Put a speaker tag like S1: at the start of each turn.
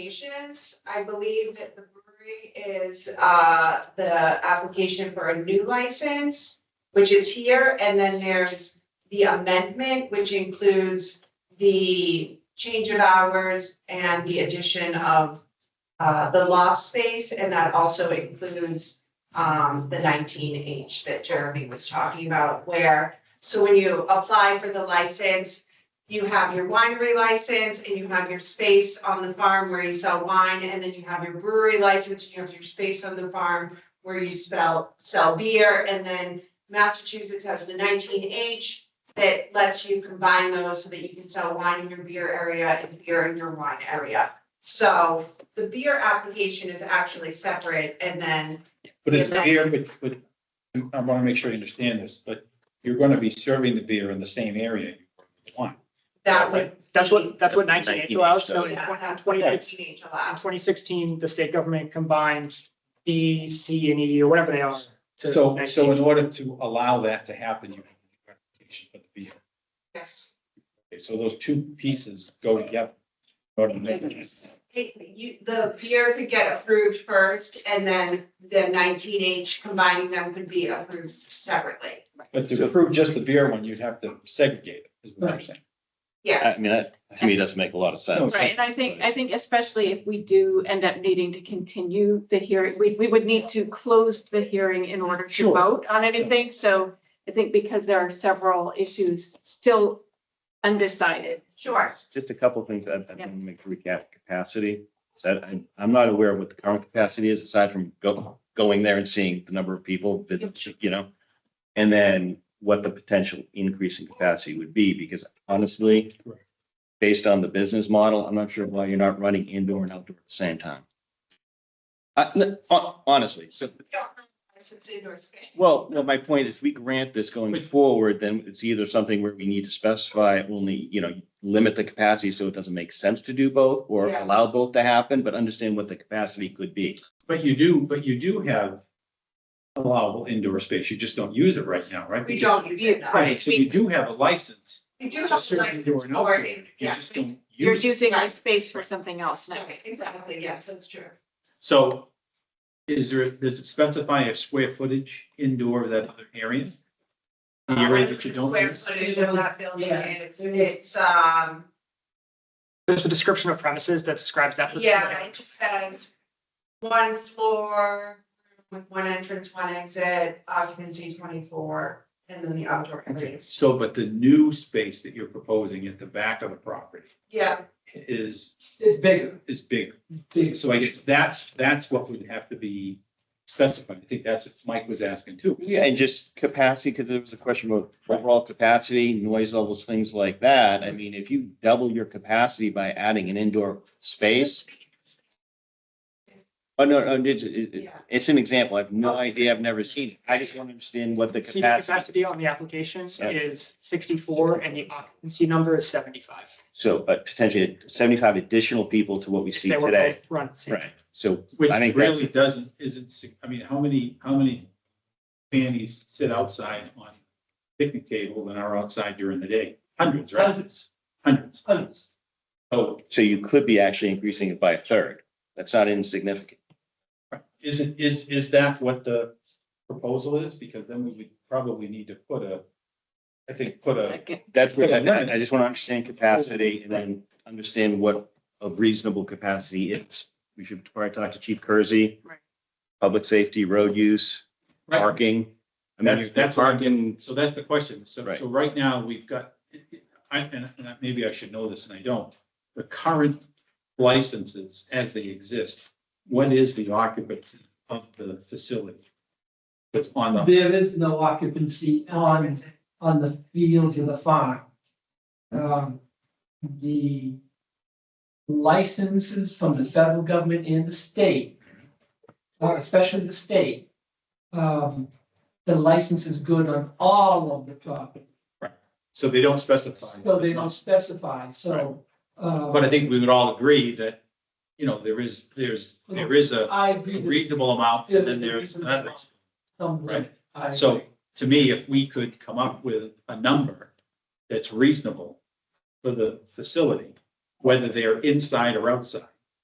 S1: applications, I believe that the brewery is, uh, the application for a new license, which is here, and then there's the amendment, which includes the change of hours and the addition of, uh, the loft space, and that also includes, um, the nineteen H that Jeremy was talking about, where, so when you apply for the license, you have your winery license and you have your space on the farm where you sell wine, and then you have your brewery license, and you have your space on the farm where you spell, sell beer, and then Massachusetts has the nineteen H that lets you combine those so that you can sell wine in your beer area and beer in your wine area. So the beer application is actually separate, and then,
S2: But it's
S1: Yeah.
S2: beer, but, but I want to make sure you understand this, but you're going to be serving the beer in the same area. you serve the wine.
S1: that would.
S3: That's what, that's what nineteen eighty allows, so in
S1: Yeah,
S3: twenty
S1: 19
S3: fifteen,
S1: H
S3: in
S1: allows.
S3: twenty sixteen, the state government combined B, C, and E, or whatever they are. to
S2: So,
S3: 19.
S2: so in order to allow that to happen, you have to have an application for the beer.
S1: yes.
S2: Okay, So those two pieces go together. in order to make it-
S1: Hey, you, the beer could get approved first and then the nineteen H combining them could be approved separately.
S2: But to approve just the beer one, you'd have to segregate it, is what I'm saying.
S4: I
S1: Yes,
S4: mean, that, to me, doesn't make a lot of sense.
S5: Right, and I think, I think especially if we do end up needing to continue the hearing, we, we would need to close the hearing in order to
S2: Sure.
S5: vote on anything, so I think because there are several issues still undecided.
S1: sure.
S4: Just a couple of things, I, I
S5: Yes.
S4: think, make recap capacity. So I, I'm not aware of what the current capacity is, aside from go, going there and seeing the number of people visit, you know? And then what the potential increase in capacity would be, because honestly,
S2: Correct.
S4: based on the business model, I'm not sure why you're not running indoor and outdoor at the same time. Uh, n- hon- honestly, so
S1: Since indoor space.
S4: Well, no, my point is, we grant this going forward, then it's either something where we need to specify only, you know, limit the capacity so it doesn't make sense to do both, or
S1: Yeah.
S4: allow both to happen, but understand what the capacity could be.
S2: But you do, but you do have allowable indoor space. You just don't use it right now, right?
S1: We don't use it now.
S2: Right, so you do have a license.
S1: We do have
S2: to
S1: a
S2: serve
S1: license
S2: indoor and
S1: for
S2: outdoor.
S1: it,
S2: You
S1: yeah.
S2: just don't
S5: You're
S2: use it.
S5: using our space for something else now.
S1: Okay, Exactly, yes, that's true.
S2: So is there, does it specify a square footage indoor of that other area? The area that you don't
S1: Uh, Square
S2: use?
S1: footage of that building,
S3: Yeah.
S1: and it's, it's, um,
S3: There's a description of premises that describes that.
S1: yeah, it just says one floor with one entrance, one exit, occupancy twenty-four, and then the outdoor areas.
S2: So, but the new space that you're proposing at the back of the property
S1: Yeah,
S2: is,
S6: It's bigger,
S2: is big.
S6: it's bigger.
S2: So I guess that's, that's what would have to be specified. I think that's what Mike was asking too.
S4: Yeah, and just capacity, because there was a question about overall capacity, noise levels, things like that. I mean, if you double your capacity by adding an indoor space, oh, no, no, it's, it-
S1: Yeah.
S4: it's an example. I have no idea. I've never seen it. I just want to understand what the
S3: See,
S4: capacity.
S3: the capacity on the application
S4: Yeah.
S3: is sixty-four and the occupancy number is seventy-five.
S4: So, but potentially seventy-five additional people to what we see
S3: They were
S4: today.
S3: both Run. at the same time.
S4: Right, so
S2: Which
S4: I think that's-
S2: really doesn't, isn't, sig- I mean, how many, how many families sit outside on picnic tables and are outside during the day? Hundreds, right?
S6: Hundreds,
S2: Hundreds.
S6: hundreds.
S2: Oh,
S4: So you could be actually increasing it by a third. That's not insignificant.
S2: is it, is, is that what the proposal is? Because then we would probably need to put a, I think, put a,
S5: Like,
S4: That's what, I, I just want to understand capacity and then understand what a reasonable capacity is. We should probably talk to Chief Kersey.
S5: Right.
S4: Public safety, road use,
S2: Right.
S4: parking. I mean,
S2: That's- that's what I'm
S4: parking,
S2: so that's the question. So,
S4: Right.
S2: so right now, we've got, I, and and I- maybe I should know this and I don't. The current licenses as they exist, what is the occupancy of the facility? It's on the,
S6: There is no occupancy on, on the fields of the farm. Um, the licenses from the federal government and the state, uh, especially the state, um, the license is good on all of the property,
S2: so they don't specify.
S6: so they don't specify, so. uh,
S2: But I think we would all agree that, you know, there is, there's, there is a
S6: I agree with
S2: reasonable amount, and then there's another.
S6: some,
S2: Right.
S6: I
S2: So-
S6: agree.
S2: To me, if we could come up with a number that's reasonable for the facility, whether they're inside or outside,